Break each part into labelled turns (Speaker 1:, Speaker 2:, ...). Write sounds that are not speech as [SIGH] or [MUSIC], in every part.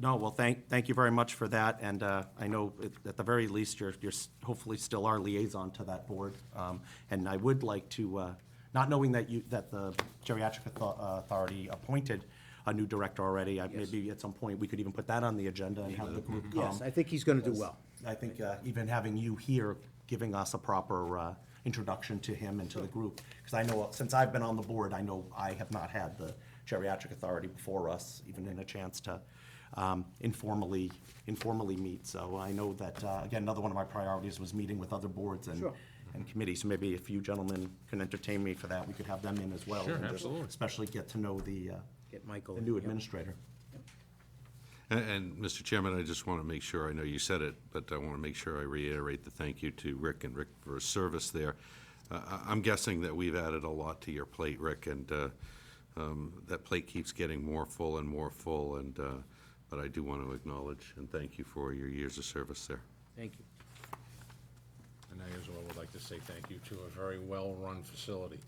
Speaker 1: No, well, thank, thank you very much for that, and uh, I know at- at the very least, you're, you're s- hopefully still our liaison to that board. Um, And I would like to, uh, not knowing that you, that the Geriatric Author- uh, Authority appointed a new director already, I- maybe at some point, we could even put that on the agenda and have the group come.
Speaker 2: Um, Yes, I think he's gonna do well.
Speaker 1: I think uh, even having you here, giving us a proper uh, introduction to him and to the group, because I know, since I've been on the board, I know I have not had the geriatric authority before us, even in a chance to um, informally, informally meet. So I know that, uh, again, another one of my priorities was meeting with other boards and,
Speaker 2: Sure.
Speaker 1: and committees. So maybe if you gentlemen can entertain me for that, we could have them in as well.
Speaker 3: Sure,
Speaker 1: and just
Speaker 3: absolutely.
Speaker 1: Especially get to know the, uh,
Speaker 2: Get Michael
Speaker 1: the
Speaker 2: in,
Speaker 1: new
Speaker 2: yep.
Speaker 1: administrator.
Speaker 3: And, and, Mr. Chairman, I just want to make sure, I know you said it, but I want to make sure I reiterate the thank you to Rick and Rick for his service there. Uh, I- I'm guessing that we've added a lot to your plate, Rick, and uh, um, that plate keeps getting more full and more full, and, uh, but I do want to acknowledge and thank you for your years of service there.
Speaker 2: Thank you.
Speaker 4: And I as well would like to say thank you to a very well-run facility.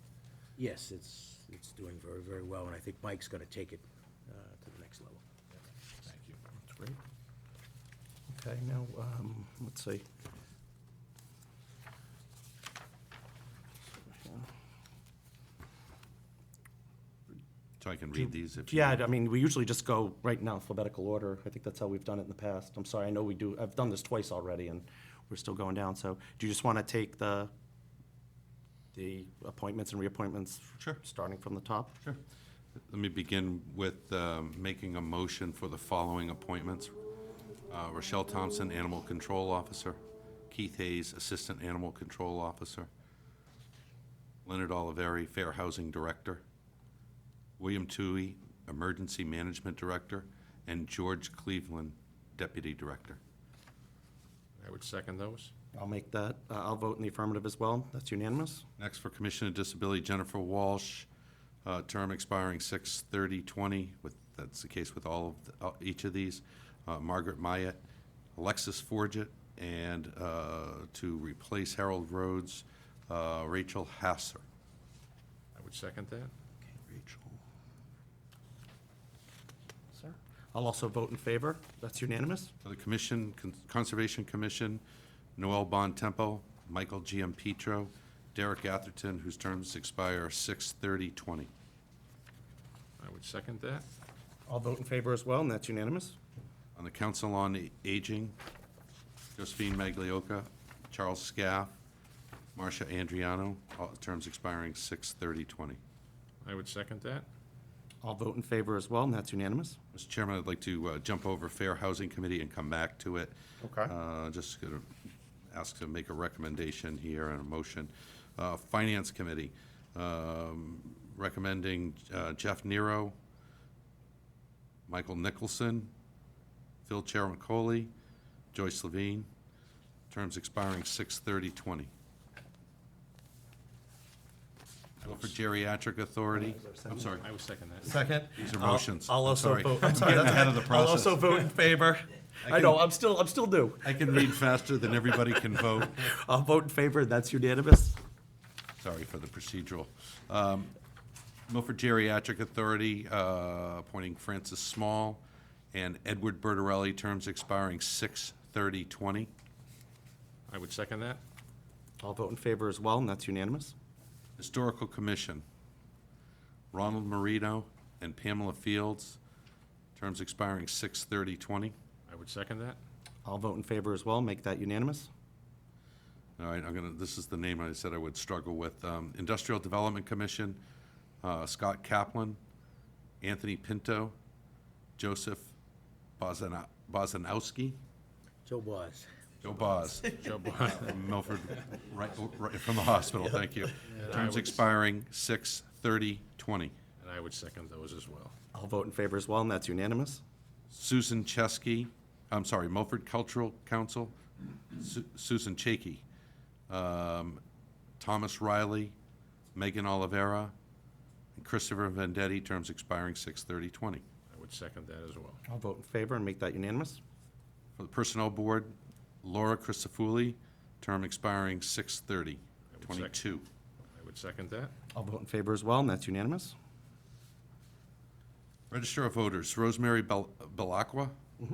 Speaker 2: Yes, it's, it's doing very, very well, and I think Mike's gonna take it uh, to the next level.
Speaker 4: Thank you.
Speaker 1: That's great. Okay, now, um, let's see.
Speaker 3: So I can read these if you.
Speaker 1: Yeah, I mean, we usually just go right in alphabetical order. I think that's how we've done it in the past. I'm sorry, I know we do, I've done this twice already, and we're still going down. So do you just want to take the, the appointments and reappointments?
Speaker 3: Sure.
Speaker 1: Starting from the top? Sure.
Speaker 3: Let me begin with um, making a motion for the following appointments. Uh, Rochelle Thompson, Animal Control Officer. Keith Hayes, Assistant Animal Control Officer. Leonard Oliveri, Fair Housing Director. William Tui, Emergency Management Director. And George Cleveland, Deputy Director.
Speaker 4: I would second those.
Speaker 1: I'll make that, uh, I'll vote in the affirmative as well. That's unanimous.
Speaker 3: Next for Commissioner of Disability, Jennifer Walsh, uh, term expiring 6/30/20, with, that's the case with all of, the- uh, each of these. Uh, Margaret Myatt, Alexis Forget, and uh, to replace Harold Rhodes, uh, Rachel Hasser.
Speaker 4: I would second that.
Speaker 3: Rachel.
Speaker 1: Sir? I'll also vote in favor. That's unanimous.
Speaker 3: For the Commission, Con- Conservation Commission, Noel Bon Tempo, Michael GM Petro, Derek Atherton, whose terms expire 6/30/20.
Speaker 4: I would second that.
Speaker 1: I'll vote in favor as well, and that's unanimous.
Speaker 3: On the Council on Aging, Josephine Maglioka, Charles Scaff, Marcia Andriano, all terms expiring 6/30/20.
Speaker 4: I would second that.
Speaker 1: I'll vote in favor as well, and that's unanimous.
Speaker 3: Mr. Chairman, I'd like to uh, jump over Fair Housing Committee and come back to it.
Speaker 1: Okay.
Speaker 3: Uh, Just going to ask to make a recommendation here and a motion. Uh, Finance Committee, um, recommending uh, Jeff Nero, Michael Nicholson, Phil Chermacoli, Joyce Levine, terms expiring 6/30/20. Go For Geriatric Authority, I'm sorry.
Speaker 4: I would second that.
Speaker 1: Second.
Speaker 3: These are motions.
Speaker 1: I'll
Speaker 3: I'm
Speaker 1: also
Speaker 3: sorry.
Speaker 1: vote.
Speaker 3: I'm
Speaker 1: sorry,
Speaker 3: getting
Speaker 1: that's-
Speaker 3: ahead of the
Speaker 1: I'll also
Speaker 3: process.
Speaker 1: vote in favor. [LAUGHS] I know, I'm still, I'm still new.
Speaker 3: I can read faster than everybody can vote.
Speaker 1: I'll vote in favor, that's unanimous.
Speaker 3: Sorry for the procedural. Um, Milford Geriatric Authority uh, appointing Francis Small and Edward Bertarelli, terms expiring 6/30/20.
Speaker 4: I would second that.
Speaker 1: I'll vote in favor as well, and that's unanimous.
Speaker 3: Historical Commission, Ronald Marino and Pamela Fields, terms expiring 6/30/20.
Speaker 4: I would second that.
Speaker 1: I'll vote in favor as well, make that unanimous.
Speaker 3: All right, I'm gonna, this is the name I said I would struggle with. Um, Industrial Development Commission, uh, Scott Kaplan, Anthony Pinto, Joseph Bozana- Bozanowski,
Speaker 2: Joe Boz.
Speaker 3: Joe Boz,
Speaker 4: Joe Bob,
Speaker 3: from Milford, right, right from the hospital, thank you. Terms expiring six thirty twenty.
Speaker 4: and I would second those as well.
Speaker 1: I'll vote in favor as well, and that's unanimous.
Speaker 3: Susan Chesky, I'm sorry, Milford Cultural Council, Su- Susan Chaky, um, Thomas Riley, Megan Olivera, and Christopher Vendetti, terms expiring 6/30/20.
Speaker 4: I would second that as well.
Speaker 1: I'll vote in favor and make that unanimous.
Speaker 3: For the Personnel Board, Laura Christofuli, term expiring
Speaker 4: I would sec-
Speaker 3: 6/30/22.
Speaker 4: I would second that.
Speaker 1: I'll vote in favor as well, and that's unanimous.
Speaker 3: Register of Voters, Rosemary Bel- Belacqua,